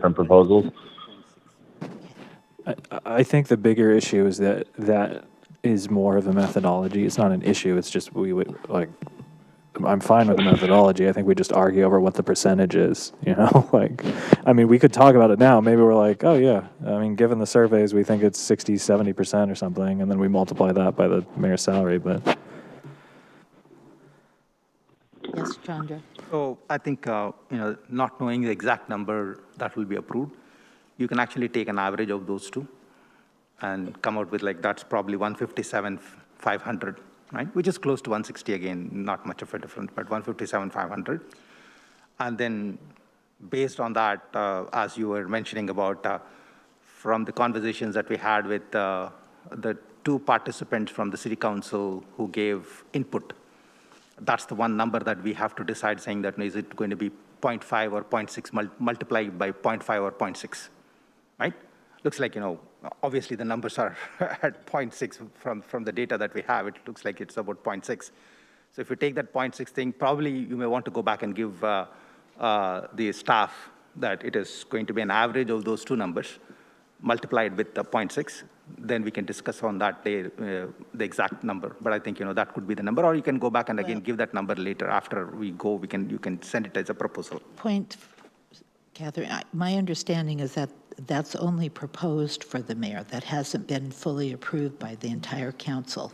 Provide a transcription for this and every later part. different proposals? I, I think the bigger issue is that that is more of a methodology. It's not an issue. It's just we would like. I'm fine with the methodology. I think we just argue over what the percentage is. You know, like, I mean, we could talk about it now. Maybe we're like, oh yeah. I mean, given the surveys, we think it's 60, 70 percent or something, and then we multiply that by the mayor's salary. But Yes, Chandra. So I think, uh, you know, not knowing the exact number that will be approved, you can actually take an average of those two and come out with like, that's probably 157, 500, right? Which is close to 160 again, not much of a difference, but 157, 500. And then based on that, uh, as you were mentioning about, uh, from the conversations that we had with uh, the two participants from the city council who gave input, that's the one number that we have to decide, saying that is it going to be 0.5 or 0.6 mul- multiplied by 0.5 or 0.6, right? Looks like, you know, obviously the numbers are at 0.6 from, from the data that we have, it looks like it's about 0.6. So if you take that 0.6 thing, probably you may want to go back and give uh, uh, the staff that it is going to be an average of those two numbers multiplied with the 0.6, then we can discuss on that day uh, the exact number. But I think, you know, that could be the number, or you can go back and again give that number later. After we go, we can, you can send it as a proposal. Point, Catherine, I- my understanding is that that's only proposed for the mayor. That hasn't been fully approved by the entire council.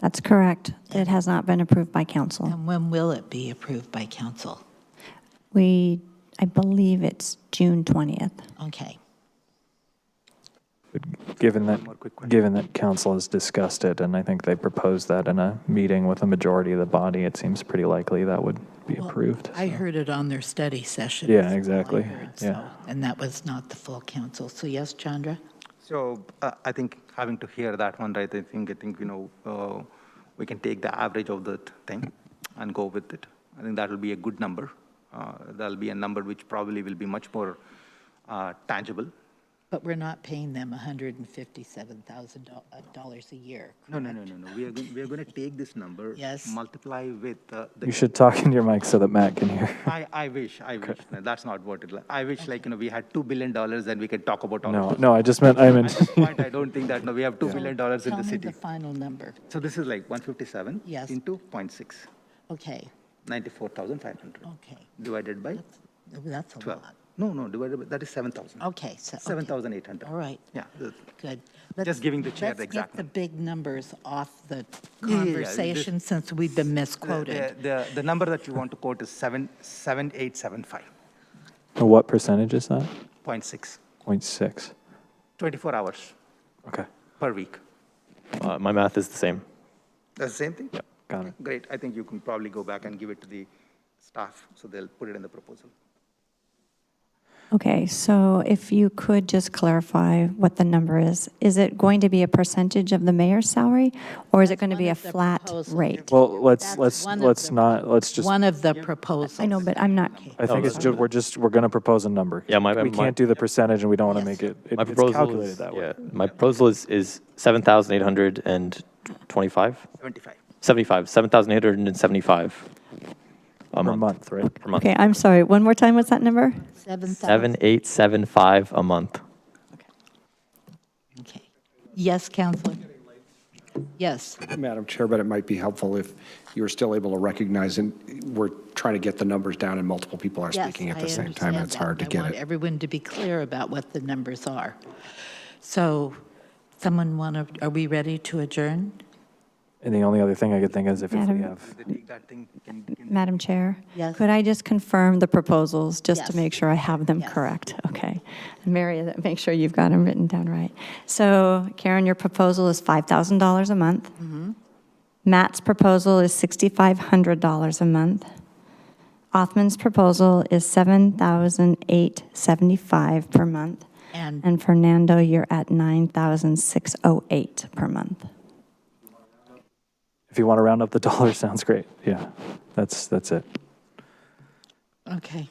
That's correct. It has not been approved by council. And when will it be approved by council? We, I believe it's June 20th. Okay. given that given that council has discussed it, and I think they proposed that in a meeting with a majority of the body, it seems pretty likely that would be approved. I heard it on their study session. Yeah, is all I exactly. heard, Yeah. so- And that was not the full council. So yes, Chandra? So uh, I think having to hear that one, right, I think, I think, you know, uh, we can take the average of that thing and go with it. I think that will be a good number. Uh, That'll be a number which probably will be much more uh, tangible. But we're not paying them $157,000 uh, a year. No, no, no, no, no. We are, we are going to take this number. Yes. Multiply with uh, the. You should talk into your mic so that Matt can hear. I, I wish, I wish. No, that's not what it, li- I wish like, you know, we had $2 billion and we could talk about all No, of it. no, I just meant I At meant. this point, I don't think that, no, we have $2 billion dollars in the Tell me the city. final number. So this is like 157. Yes. Into 0.6, Okay, 94,500. okay. Divided by That's a 12. lot. No, no, divided by, that is 7,000. Okay, so. okay. 7,800. All right. Yeah. the- Good. Let's- Just giving the chair the exact. Let's get the big numbers off the yeah, yeah, this- conversation since we've been number. The- misquoted. The, the number that you want to quote is 7, 7875, What percentage is that? 0.6, 0.6. 24 hours Okay, per week. Uh, my math is the same. That's the same thing? got it. Great, I think you can probably go back and give it to the staff, so they'll put it in the proposal. Okay, so if you could just clarify what the number is. Is it going to be a percentage of the mayor's salary, or is it going to be a of the flat proposals. rate? Well, let's That's let's one of let's the- not let's just. One of the proposals. I know, but I'm not, I think it's just we're just we're gonna propose a number. Oh, Yeah, my- we my- can't do the percentage, and we don't want to Yes. make it. it My it's proposal calculated is, that way. Yeah, my proposal is, is 7,825? 75. 75, 7,875 a Per month. month, right? Per month. okay, I'm sorry. One more time, what's that number? 7,000. 7,875 a month. Okay. Yes, Counselor? Yes. Madam Chair, but it might be helpful if you were still able to recognize, and we're trying to get the numbers down and multiple people are Yes, speaking at I the same understand time. It's that. hard to I get want it. everyone to be clear about what the numbers are. So someone want to, are we ready to adjourn? And the only other thing I could think is if, if we Madam- have They take that thing, can, can, Madam Chair? Yes. Could I just confirm the proposals, just Yes. to make sure I have them Yes. correct? Okay. Mary, that- make sure you've got them written down right. So Karen, your proposal is $5,000 a month. Mm-hmm. Matt's proposal is $6,500 a month. Othman's proposal is $7,875 per month. And- And Fernando, you're at $9,608 per month. if you want to round up the dollar, sounds great. Yeah, that's that's it. Okay.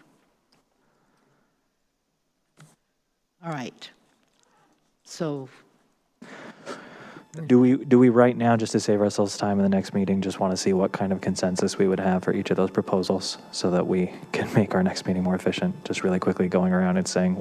All right. So Do we, do we right now, just to save ourselves time in the next meeting, just want to see what kind of consensus we would have for each of those proposals so that we can make our next meeting more efficient? Just really quickly going around and saying